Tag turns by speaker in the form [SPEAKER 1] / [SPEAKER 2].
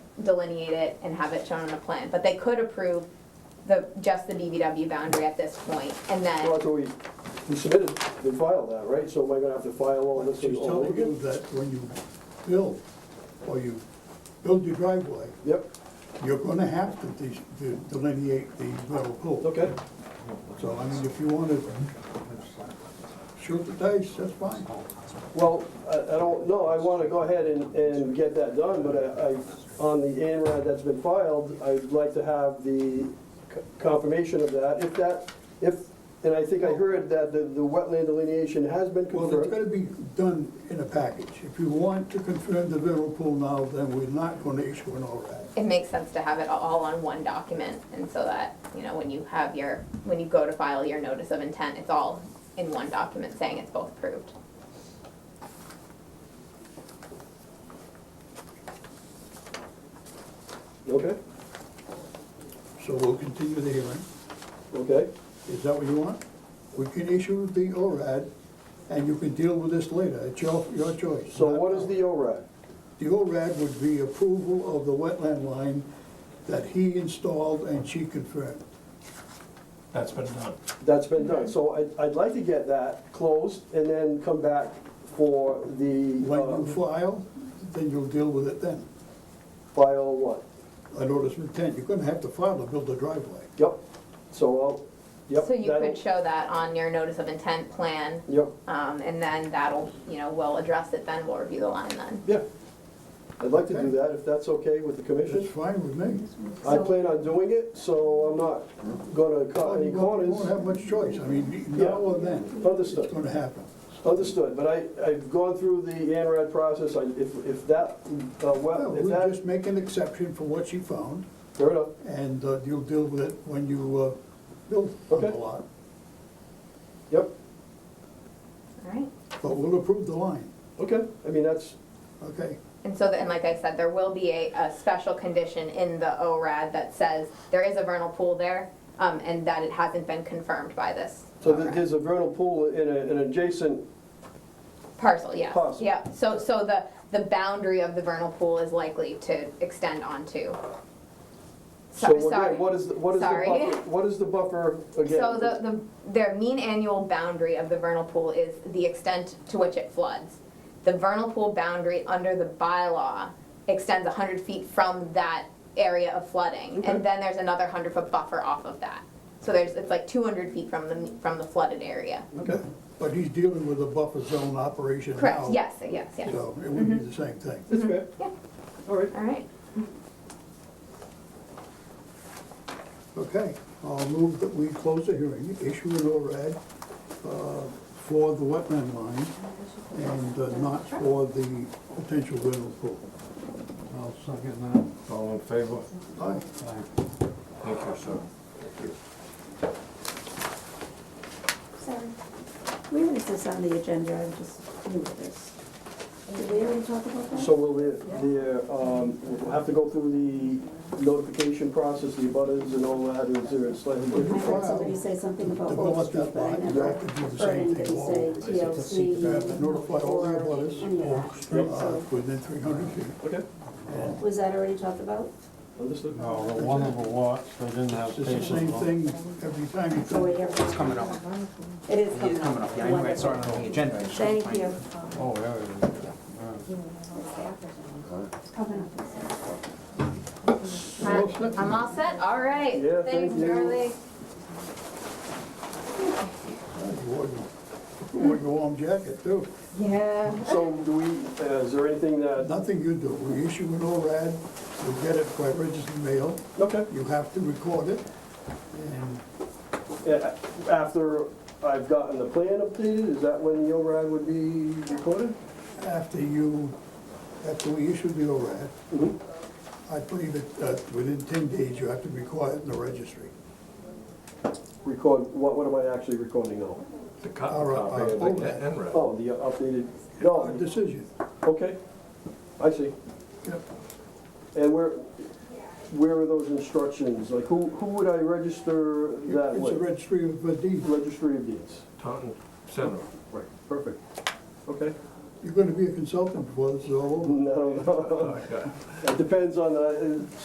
[SPEAKER 1] delineate it and have it shown on a plan, but they could approve the, just the BBW boundary at this point, and
[SPEAKER 2] Well,
[SPEAKER 1] then,
[SPEAKER 2] so we, we submitted, we filed that, right? So am I gonna have to file all this
[SPEAKER 3] She's
[SPEAKER 2] all over
[SPEAKER 3] telling you
[SPEAKER 2] again?
[SPEAKER 3] that when you build, or you build your driveway,
[SPEAKER 2] Yep,
[SPEAKER 3] you're gonna have to de- to delineate the metal pool.
[SPEAKER 2] okay.
[SPEAKER 3] So, I mean, if you wanna shoot the dice, that's fine.
[SPEAKER 2] Well, I, I don't, know. I wanna go ahead and, and get that done, but I, I, on the ANRAD that's been filed, I'd like to have the c- confirmation of that, if that, if, and I think I heard that the, the wetland delineation has been
[SPEAKER 3] Well, it's
[SPEAKER 2] confirmed.
[SPEAKER 3] gotta be done in a package. If you want to confirm the metal pool now, then we're not gonna issue an ORAD.
[SPEAKER 1] it makes sense to have it all on one document, and so that, you know, when you have your, when you go to file your notice of intent, it's all in one document saying it's both approved.
[SPEAKER 2] Okay,
[SPEAKER 3] So we'll continue the hearing.
[SPEAKER 2] okay.
[SPEAKER 3] Is that what you want? We can issue the ORAD, and you can deal with this later. It's your, your choice.
[SPEAKER 2] So what is the ORAD?
[SPEAKER 3] The ORAD would be approval of the wetland line that he installed and she confirmed.
[SPEAKER 4] That's been done.
[SPEAKER 2] That's been done. So I'd, I'd like to get that closed and then come back for the,
[SPEAKER 3] When you
[SPEAKER 2] uh,
[SPEAKER 3] file, then you'll deal with it then.
[SPEAKER 2] file what?
[SPEAKER 3] I notice of intent, you're gonna have to file to build a driveway.
[SPEAKER 2] Yep, so I'll, yep.
[SPEAKER 1] So you
[SPEAKER 2] that'll-
[SPEAKER 1] could show that on your notice of intent plan,
[SPEAKER 2] Yep,
[SPEAKER 1] um, and then that'll, you know, we'll address it then, we'll review the line then.
[SPEAKER 2] yeah. I'd like to do
[SPEAKER 3] Okay.
[SPEAKER 2] that, if that's okay with the
[SPEAKER 3] That's
[SPEAKER 2] commission.
[SPEAKER 3] fine with me.
[SPEAKER 2] I
[SPEAKER 1] So-
[SPEAKER 2] plan on doing it, so I'm not gonna cut
[SPEAKER 3] You
[SPEAKER 2] any
[SPEAKER 3] won't- you won't
[SPEAKER 2] corners.
[SPEAKER 3] have much choice, I mean, now or then, it's
[SPEAKER 2] Understood,
[SPEAKER 3] gonna happen.
[SPEAKER 2] understood, but I, I've gone through the ANRAD process, I, if, if that, uh,
[SPEAKER 3] Well,
[SPEAKER 2] well, if
[SPEAKER 3] We'll just
[SPEAKER 2] that,
[SPEAKER 3] make an exception for what she found,
[SPEAKER 2] fair enough,
[SPEAKER 3] and uh, you'll deal with it when you uh, build on the
[SPEAKER 2] Okay.
[SPEAKER 3] lot.
[SPEAKER 2] yep,
[SPEAKER 1] All right.
[SPEAKER 3] But we'll approve the line,
[SPEAKER 2] okay, I mean, that's,
[SPEAKER 3] okay?
[SPEAKER 1] And so, the- and like I said, there will be a, a special condition in the ORAD that says there is a vernal pool there, um, and that it hasn't been confirmed by this.
[SPEAKER 2] so that
[SPEAKER 1] ORAD.
[SPEAKER 2] there's a vernal pool in a, an adjacent,
[SPEAKER 1] Parcel, yes.
[SPEAKER 2] Parcel.
[SPEAKER 1] Yeah, so, so the, the boundary of the vernal pool is likely to extend onto.
[SPEAKER 2] so
[SPEAKER 1] So- Sorry.
[SPEAKER 2] again, what is, the- what is the
[SPEAKER 1] Sorry.
[SPEAKER 2] buffer, what is the buffer again?
[SPEAKER 1] So the, the, their mean annual boundary of the vernal pool is the extent to which it floods. The vernal pool boundary under the bylaw extends hundred feet from that area of flooding.
[SPEAKER 2] Okay.
[SPEAKER 1] And then there's another hundred foot buffer off of that. So there's, it's like two hundred feet from the, from the flooded area.
[SPEAKER 2] Okay,
[SPEAKER 3] But he's dealing with a buffer zone operation now.
[SPEAKER 1] Correct, yes, yes, yes.
[SPEAKER 3] So it would be
[SPEAKER 5] Mm-hmm.
[SPEAKER 3] the same thing.
[SPEAKER 2] that's fair,
[SPEAKER 1] Yeah,
[SPEAKER 2] all right.
[SPEAKER 1] all right.
[SPEAKER 3] Okay, I'll move that we close the hearing, issue an ORAD uh, for the wetland line and uh, not for the potential vernal pool.
[SPEAKER 6] I'll second
[SPEAKER 4] All in favor?
[SPEAKER 3] Aye.
[SPEAKER 6] that.
[SPEAKER 4] Thank you, sir.
[SPEAKER 5] Sorry. Where is this on the agenda? I'm just new to this. Did we already talk about that?
[SPEAKER 2] So will the, the, um, we'll have to go through the notification process, the butters and all that, is there a slightly
[SPEAKER 5] I
[SPEAKER 2] different?
[SPEAKER 5] heard somebody say something about Old
[SPEAKER 3] Develop that
[SPEAKER 5] Street, but I
[SPEAKER 3] line, you
[SPEAKER 5] never
[SPEAKER 3] have to do the
[SPEAKER 5] heard
[SPEAKER 3] same
[SPEAKER 5] anybody
[SPEAKER 3] thing. all
[SPEAKER 5] say
[SPEAKER 3] over. You have to
[SPEAKER 5] TLC
[SPEAKER 3] notify all the
[SPEAKER 5] or
[SPEAKER 3] abutters,
[SPEAKER 5] any of that.
[SPEAKER 3] uh
[SPEAKER 5] So,
[SPEAKER 3] within 300 feet.
[SPEAKER 2] Okay,
[SPEAKER 3] And
[SPEAKER 5] Was that already talked about?
[SPEAKER 2] understood.
[SPEAKER 6] No, the one of the lots, they didn't have
[SPEAKER 3] It's the
[SPEAKER 6] papers
[SPEAKER 3] same
[SPEAKER 6] on.
[SPEAKER 3] thing every time you
[SPEAKER 5] So
[SPEAKER 3] come.
[SPEAKER 5] we hear. It's
[SPEAKER 7] coming up.
[SPEAKER 5] It is
[SPEAKER 7] It is coming up, yeah, I knew I saw it
[SPEAKER 5] Wonderful.
[SPEAKER 7] on the agenda. I just couldn't
[SPEAKER 5] Thank
[SPEAKER 7] find
[SPEAKER 5] you.
[SPEAKER 7] it.
[SPEAKER 6] Oh, yeah, yeah, yeah.
[SPEAKER 5] It's coming up.
[SPEAKER 3] Well, it's-
[SPEAKER 1] I'm all set, all right.
[SPEAKER 2] Yeah,
[SPEAKER 1] Thanks,
[SPEAKER 2] thank you.
[SPEAKER 1] Charlie.
[SPEAKER 3] You wore your- you wore your warm jacket, too.
[SPEAKER 1] Yeah.
[SPEAKER 2] So do we, uh, is there anything that,
[SPEAKER 3] Nothing you do, we issue an ORAD, you get it by registered mail,
[SPEAKER 2] okay,
[SPEAKER 3] you have to record it, and
[SPEAKER 2] Yeah, after I've gotten the plan updated, is that when the override would be recorded?
[SPEAKER 3] after you, after we issue the ORAD,
[SPEAKER 2] Mhm.
[SPEAKER 3] I believe that uh, within ten days, you have to record it in the registry.
[SPEAKER 2] Record, what, what am I actually recording now?
[SPEAKER 4] The cut
[SPEAKER 3] All right,
[SPEAKER 4] copy
[SPEAKER 3] I'll
[SPEAKER 4] of
[SPEAKER 3] hold
[SPEAKER 4] the
[SPEAKER 3] that.
[SPEAKER 4] NRED.
[SPEAKER 2] Oh, the updated,
[SPEAKER 3] Our
[SPEAKER 2] no,
[SPEAKER 3] decision,
[SPEAKER 2] okay, I see.
[SPEAKER 3] Yep.
[SPEAKER 2] And where, where are those instructions? Like, who, who would I register that
[SPEAKER 3] it's
[SPEAKER 2] with?
[SPEAKER 3] a registry of uh, deeds.
[SPEAKER 2] Registry of deeds.
[SPEAKER 4] Taunton Center.
[SPEAKER 2] Right, perfect. Okay,
[SPEAKER 3] You're gonna be a consultant before this is all over.
[SPEAKER 2] No, no,
[SPEAKER 4] Okay.
[SPEAKER 2] it depends on uh, the,